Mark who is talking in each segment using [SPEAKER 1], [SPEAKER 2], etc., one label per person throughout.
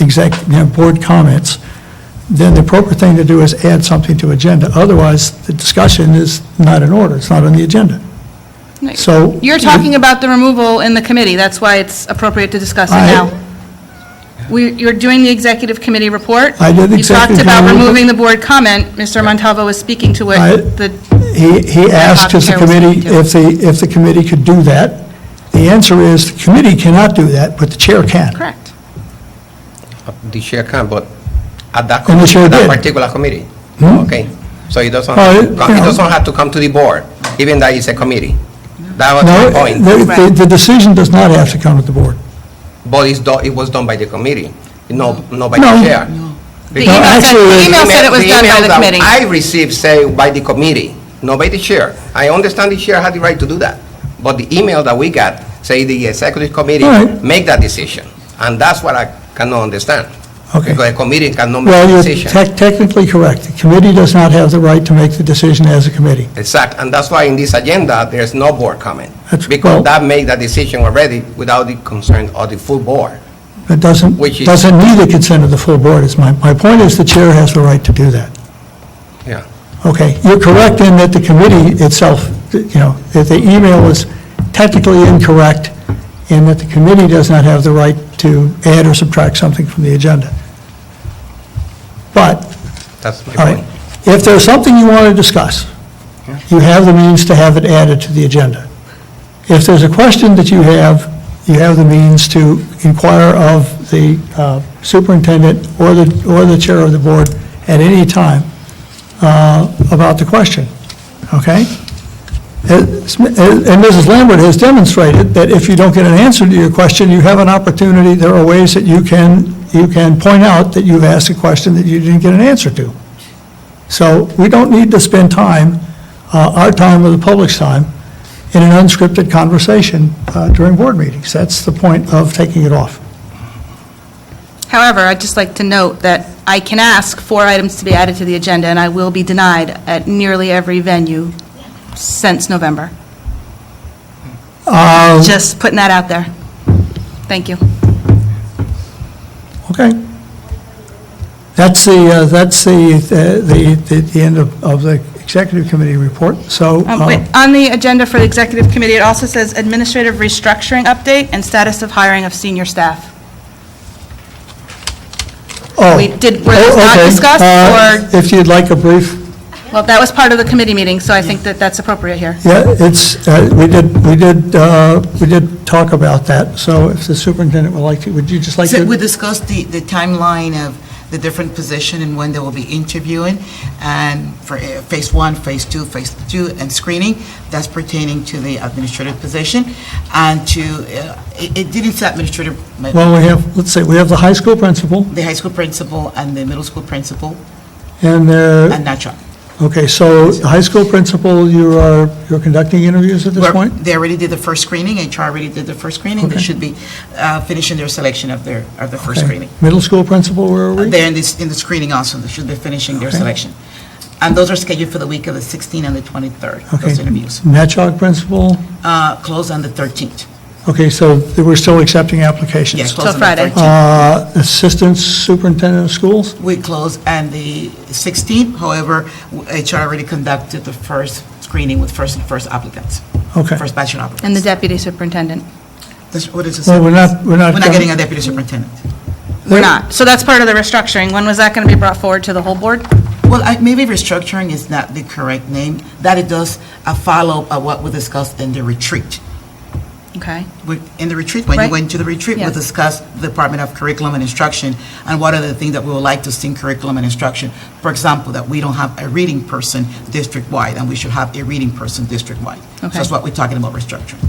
[SPEAKER 1] exec, you know, board comments, then the appropriate thing to do is add something to agenda. Otherwise, the discussion is not in order, it's not on the agenda.
[SPEAKER 2] No,
[SPEAKER 1] So-
[SPEAKER 2] You're talking about the removal in the committee, that's why it's appropriate to discuss it
[SPEAKER 1] I-
[SPEAKER 2] now. We, you're doing the executive committee report.
[SPEAKER 1] I did executive
[SPEAKER 2] You talked about
[SPEAKER 1] committee report.
[SPEAKER 2] removing the board comment, Mr. Montalvo was speaking to
[SPEAKER 1] I-
[SPEAKER 2] it, the
[SPEAKER 1] He, he asked if the
[SPEAKER 2] Chair was
[SPEAKER 1] committee,
[SPEAKER 2] speaking to.
[SPEAKER 1] if the, if the committee could do that. The answer is, the committee cannot do that, but the chair can.
[SPEAKER 2] Correct.
[SPEAKER 3] The chair can, but at that,
[SPEAKER 1] And the chair
[SPEAKER 3] committee- that
[SPEAKER 1] did.
[SPEAKER 3] particular committee?
[SPEAKER 1] Hmm?
[SPEAKER 3] Okay, so it doesn't,
[SPEAKER 1] Well,
[SPEAKER 3] have to
[SPEAKER 1] it-
[SPEAKER 3] come-
[SPEAKER 1] you
[SPEAKER 3] it
[SPEAKER 1] know.
[SPEAKER 3] doesn't have to come to the board, even though it's a committee. That was
[SPEAKER 1] No,
[SPEAKER 3] my point.
[SPEAKER 1] the, the- the decision does not have to come to the board.
[SPEAKER 3] But it's, do- it was done by the committee, no, not by
[SPEAKER 1] No.
[SPEAKER 3] the chair.
[SPEAKER 2] The
[SPEAKER 3] Because-
[SPEAKER 2] email said,
[SPEAKER 1] actually,
[SPEAKER 2] the email said it was done by
[SPEAKER 3] email
[SPEAKER 2] the
[SPEAKER 3] that
[SPEAKER 2] committee.
[SPEAKER 3] I received say by the committee, not by the chair. I understand the chair had the right to do that, but the email that we got say the executive committee
[SPEAKER 1] All right.
[SPEAKER 3] make that decision, and that's what I cannot understand.
[SPEAKER 1] Okay.
[SPEAKER 3] Because the committee cannot make
[SPEAKER 1] Well,
[SPEAKER 3] a
[SPEAKER 1] you're
[SPEAKER 3] decision.
[SPEAKER 1] tec- technically correct. The committee does not have the right to make the decision as a committee.
[SPEAKER 3] Exact, and that's why in this agenda, there's no board comment.
[SPEAKER 1] That's- well-
[SPEAKER 3] Because that made that decision already without the concern of the full board.
[SPEAKER 1] It doesn't,
[SPEAKER 3] Which is-
[SPEAKER 1] doesn't need the consent of the full board, is my, my point is the chair has the right to do that.
[SPEAKER 3] Yeah.
[SPEAKER 1] Okay, you're correct in that the committee itself, you know, that the email was technically incorrect, and that the committee does not have the right to add or subtract something from the agenda. But
[SPEAKER 3] That's my
[SPEAKER 1] All right.
[SPEAKER 3] point.
[SPEAKER 1] If there's something you want to discuss, you have the means to have it added to the agenda. If there's a question that you have, you have the means to inquire of the uh, superintendent or the, or the chair of the board at any time uh, about the question, okay? It's- And Mrs. Lambert has demonstrated that if you don't get an answer to your question, you have an opportunity, there are ways that you can, you can point out that you've asked a question that you didn't get an answer to. So we don't need to spend time, uh, our time or the public's time, in an unscripted conversation uh, during board meetings. That's the point of taking it off.
[SPEAKER 2] However, I'd just like to note that I can ask four items to be added to the agenda, and I will be denied at nearly every venue since November. Just putting that out there. Thank you.
[SPEAKER 1] Okay. That's the, uh, that's the, the, the- the end of of the executive committee report, so.
[SPEAKER 2] Um,
[SPEAKER 1] uh,
[SPEAKER 2] wait, On the agenda for the executive committee, it also says administrative restructuring update and status of hiring of senior staff.
[SPEAKER 1] oh,
[SPEAKER 2] we- did- were those
[SPEAKER 1] oh,
[SPEAKER 2] not
[SPEAKER 1] okay.
[SPEAKER 2] discussed,
[SPEAKER 1] Uh, If you'd like a brief,
[SPEAKER 2] Well, that was part of the committee meeting, so I think that that's appropriate here.
[SPEAKER 1] yeah, it's, uh, we did, we did, uh, we did talk about that, so if the superintendent would like to, would you just like
[SPEAKER 4] So
[SPEAKER 1] to?
[SPEAKER 4] We discussed the, the timeline of the different position and when they will be interviewing, and for uh, phase one, phase two, phase two, and screening, that's pertaining to the administrative position, and to, uh, it it didn't say administrative, but
[SPEAKER 1] Well, we have, let's see, we have the high school principal
[SPEAKER 4] the high school principal and the middle school principal,
[SPEAKER 1] and uh,
[SPEAKER 4] and natural.
[SPEAKER 1] Okay, so the high school principal, you are, you're conducting interviews at this point?
[SPEAKER 4] They already did the first screening, HR already did the first screening, they
[SPEAKER 1] Okay.
[SPEAKER 4] should be uh, finishing their selection of their, of the first
[SPEAKER 1] Okay.
[SPEAKER 4] screening.
[SPEAKER 1] Middle school principal, where are we?
[SPEAKER 4] They're in this, in the screening also, they should be finishing their
[SPEAKER 1] Okay.
[SPEAKER 4] selection. And those are scheduled for the week of the 16th and the 23rd,
[SPEAKER 1] Okay.
[SPEAKER 4] those interviews.
[SPEAKER 1] Natchog principal?
[SPEAKER 4] Uh, Close on the 13th.
[SPEAKER 1] Okay, so th- we're still accepting applications?
[SPEAKER 4] Yeah, close on the
[SPEAKER 2] Friday.
[SPEAKER 4] 13th.
[SPEAKER 1] Uh, Assistant superintendent of schools?
[SPEAKER 4] We close on the 16th, however, w- HR already conducted the first screening with first first applicants.
[SPEAKER 1] Okay.
[SPEAKER 4] First batch of
[SPEAKER 2] And the
[SPEAKER 4] applicants.
[SPEAKER 2] deputy superintendent.
[SPEAKER 4] That's- What is this?
[SPEAKER 1] Well, we're not, we're not.
[SPEAKER 4] We're not getting a deputy superintendent.
[SPEAKER 2] We're not. So that's part of the restructuring. When was that going to be brought forward to the whole board?
[SPEAKER 4] Well, I- maybe restructuring is not the correct name, that it does a follow-up of what we discussed in the retreat.
[SPEAKER 2] Okay.
[SPEAKER 4] We- In the retreat, when you
[SPEAKER 2] Right.
[SPEAKER 4] went to the retreat, we
[SPEAKER 2] Yes.
[SPEAKER 4] discussed the Department of Curriculum and Instruction and what are the things that we would like to see in curriculum and instruction. For example, that we don't have a reading person district-wide, and we should have a reading person district-wide. So
[SPEAKER 2] Okay.
[SPEAKER 4] That's what we're talking about restructuring.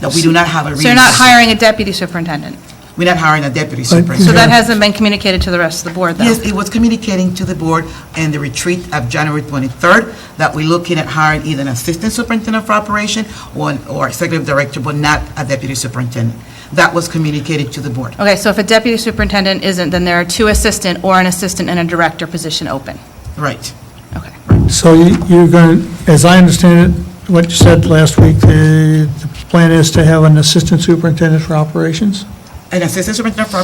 [SPEAKER 4] That we do not have a reading.
[SPEAKER 2] So you're not hiring a deputy superintendent?
[SPEAKER 4] We're not hiring a deputy
[SPEAKER 1] But-
[SPEAKER 4] superintendent.
[SPEAKER 2] So that hasn't been communicated to the rest of the board, though?
[SPEAKER 4] Yes, it was communicating to the board in the retreat of January 23rd that we're looking at hiring either an assistant superintendent for operation or, an- or executive director, but not a deputy superintendent. That was communicated to the board.
[SPEAKER 2] Okay, so if a deputy superintendent isn't, then there are two assistant or an assistant and a director position open.
[SPEAKER 4] Right.
[SPEAKER 2] Okay.
[SPEAKER 1] So you- you're going, to as I understand it, what you said last week, the the plan is to have an assistant superintendent for operations?
[SPEAKER 4] An assistant superintendent for